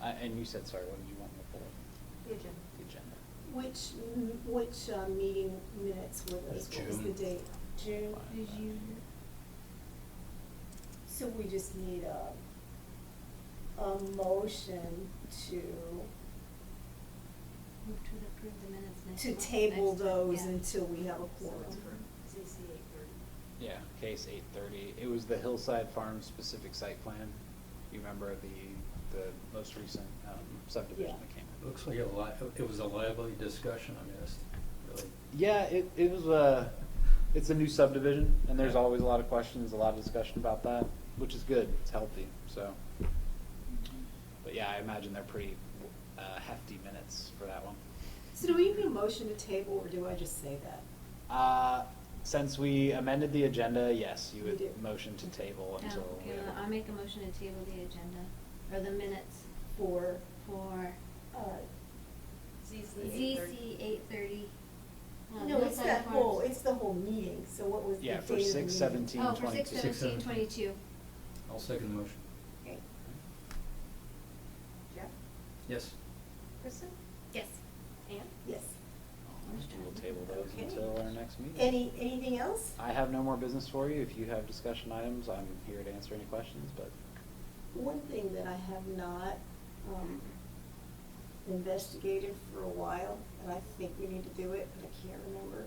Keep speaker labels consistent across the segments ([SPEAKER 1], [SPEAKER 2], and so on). [SPEAKER 1] Uh, and you said, sorry, what did you want me to pull up?
[SPEAKER 2] The agenda.
[SPEAKER 1] The agenda.
[SPEAKER 3] Which, m- which uh, meeting minutes were those? What was the
[SPEAKER 1] June.
[SPEAKER 3] date? June?
[SPEAKER 1] Did you-
[SPEAKER 3] So we just need a, a motion to,
[SPEAKER 2] Move to approve the minutes next
[SPEAKER 3] to
[SPEAKER 2] month.
[SPEAKER 3] table
[SPEAKER 2] Next month,
[SPEAKER 3] those
[SPEAKER 2] yeah.
[SPEAKER 3] until we have a
[SPEAKER 2] So
[SPEAKER 3] quorum.
[SPEAKER 2] it's for CC eight thirty.
[SPEAKER 1] Yeah, case eight thirty. It was the Hillside Farm specific site plan. You remember the, the most recent um, subdivision
[SPEAKER 3] Yeah.
[SPEAKER 1] that came in?
[SPEAKER 4] Looks like a li, it was a lively discussion, I mean, it's really.
[SPEAKER 1] Yeah, it, it was a, it's a new subdivision, and there's always a lot of questions, a lot of discussion about that, which is good, it's healthy, so. But yeah, I imagine they're pretty uh, hefty minutes for that one.
[SPEAKER 3] So do we need a motion to table, or do I just say that?
[SPEAKER 1] Uh, Since we amended the agenda, yes, you
[SPEAKER 3] We
[SPEAKER 1] would
[SPEAKER 3] did.
[SPEAKER 1] motion to table until.
[SPEAKER 2] Oh,
[SPEAKER 1] we
[SPEAKER 2] Okay,
[SPEAKER 1] have
[SPEAKER 2] well,
[SPEAKER 1] a-
[SPEAKER 2] I'll make a motion to table the agenda, or the minutes
[SPEAKER 3] For,
[SPEAKER 2] for
[SPEAKER 3] uh,
[SPEAKER 2] ZC eight thirty. Uh,
[SPEAKER 3] no, it's that whole, it's the whole meeting, so what was the date
[SPEAKER 1] Yeah,
[SPEAKER 3] of
[SPEAKER 1] for
[SPEAKER 3] the meeting?
[SPEAKER 1] 6/17.
[SPEAKER 2] Oh, for six
[SPEAKER 1] 22.
[SPEAKER 2] seventeen twenty-two.
[SPEAKER 4] I'll second the motion.
[SPEAKER 3] Okay.
[SPEAKER 5] Jeff?
[SPEAKER 4] Yes.
[SPEAKER 5] Kristen?
[SPEAKER 2] Yes. And?
[SPEAKER 3] Yes.
[SPEAKER 1] We will table those
[SPEAKER 3] Okay.
[SPEAKER 1] until our next meeting.
[SPEAKER 3] Any, anything else?
[SPEAKER 1] I have no more business for you. If you have discussion items, I'm here to answer any questions, but
[SPEAKER 3] One thing that I have not um, investigated for a while, and I think we need to do it, but I can't remember.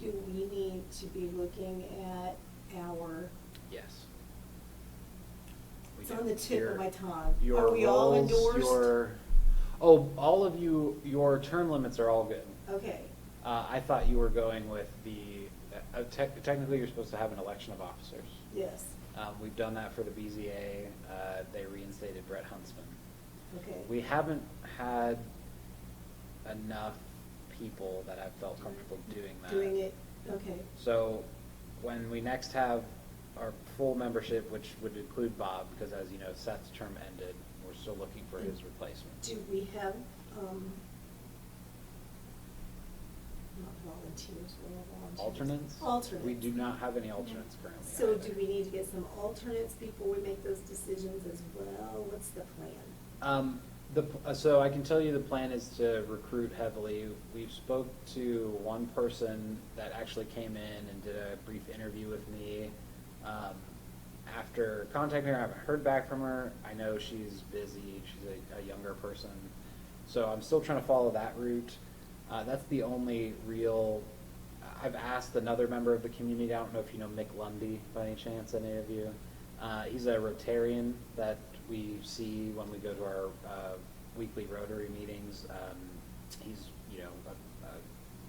[SPEAKER 3] Do we need to be looking at our,
[SPEAKER 1] yes. We
[SPEAKER 3] it's
[SPEAKER 1] do.
[SPEAKER 3] on the tip
[SPEAKER 1] Your-
[SPEAKER 3] of my tongue.
[SPEAKER 1] Your
[SPEAKER 3] Are we all
[SPEAKER 1] roles,
[SPEAKER 3] endorsed?
[SPEAKER 1] your- Oh, all of you, your term limits are all good.
[SPEAKER 3] Okay,
[SPEAKER 1] Uh, I thought you were going with the, uh, tech- technically, you're supposed to have an election of officers.
[SPEAKER 3] yes,
[SPEAKER 1] Um, We've done that for the BZA. Uh, They reinstated Brett Huntsman.
[SPEAKER 3] okay.
[SPEAKER 1] We haven't had enough people that have felt comfortable doing that.
[SPEAKER 3] Doing it, okay.
[SPEAKER 1] So when we next have our full membership, which would include Bob, because as you know, Seth's term ended, we're still looking for his replacement.
[SPEAKER 3] Do we have, um, not volunteers, we have volunteers.
[SPEAKER 1] Alternates?
[SPEAKER 3] Alternates.
[SPEAKER 1] We do not have any alternates currently.
[SPEAKER 3] So
[SPEAKER 1] either.
[SPEAKER 3] do we need to get some alternates before we make those decisions as well? What's the plan?
[SPEAKER 1] Um, the, p- uh, so I can tell you the plan is to recruit heavily. We've spoke to one person that actually came in and did a brief interview with me. Um, after contacting her, I haven't heard back from her. I know she's busy. She's a, a younger person. So I'm still trying to follow that route. Uh, that's the only real, I've asked another member of the community, I don't know if you know Mick Lundy by any chance, any of you. Uh, he's a Rotarian that we see when we go to our, uh, weekly Rotary meetings. Um, he's, you know, a, a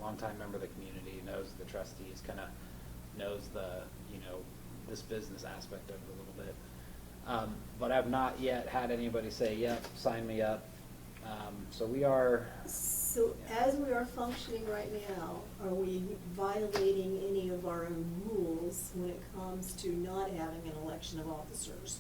[SPEAKER 1] longtime member of the community, knows the trustees, kinda knows the, you know, this business aspect of it a little bit. Um, but I've not yet had anybody say, yep, sign me up. Um, so we are,
[SPEAKER 3] So as we are functioning right now, are we violating any of our own rules when it comes to not having an election of officers?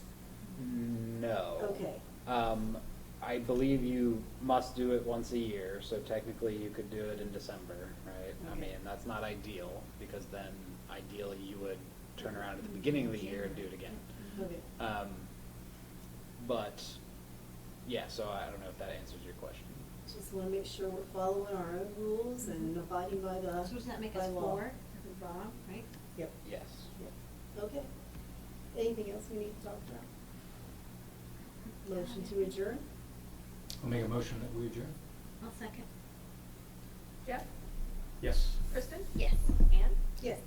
[SPEAKER 1] No.
[SPEAKER 3] Okay.
[SPEAKER 1] Um, I believe you must do it once a year, so technically you could do it in December, right? I
[SPEAKER 3] Okay.
[SPEAKER 1] mean, that's not ideal, because then ideally you would turn around at the beginning of the year and do it again.
[SPEAKER 3] Okay.
[SPEAKER 1] Um, but, yeah, so I don't know if that answers your question.
[SPEAKER 3] Just wanna make sure we're following our own rules and abiding by the,
[SPEAKER 2] So does that make
[SPEAKER 3] by
[SPEAKER 2] us
[SPEAKER 3] law.
[SPEAKER 2] four? If we're wrong, right?
[SPEAKER 3] Yep.
[SPEAKER 1] Yes.
[SPEAKER 3] Yep. Okay. Anything else we need to talk about? Motion to adjourn?
[SPEAKER 4] I'll make a motion that we adjourn.
[SPEAKER 2] I'll second.
[SPEAKER 5] Jeff?
[SPEAKER 4] Yes.
[SPEAKER 5] Kristen?
[SPEAKER 2] Yes. And?
[SPEAKER 3] Yes.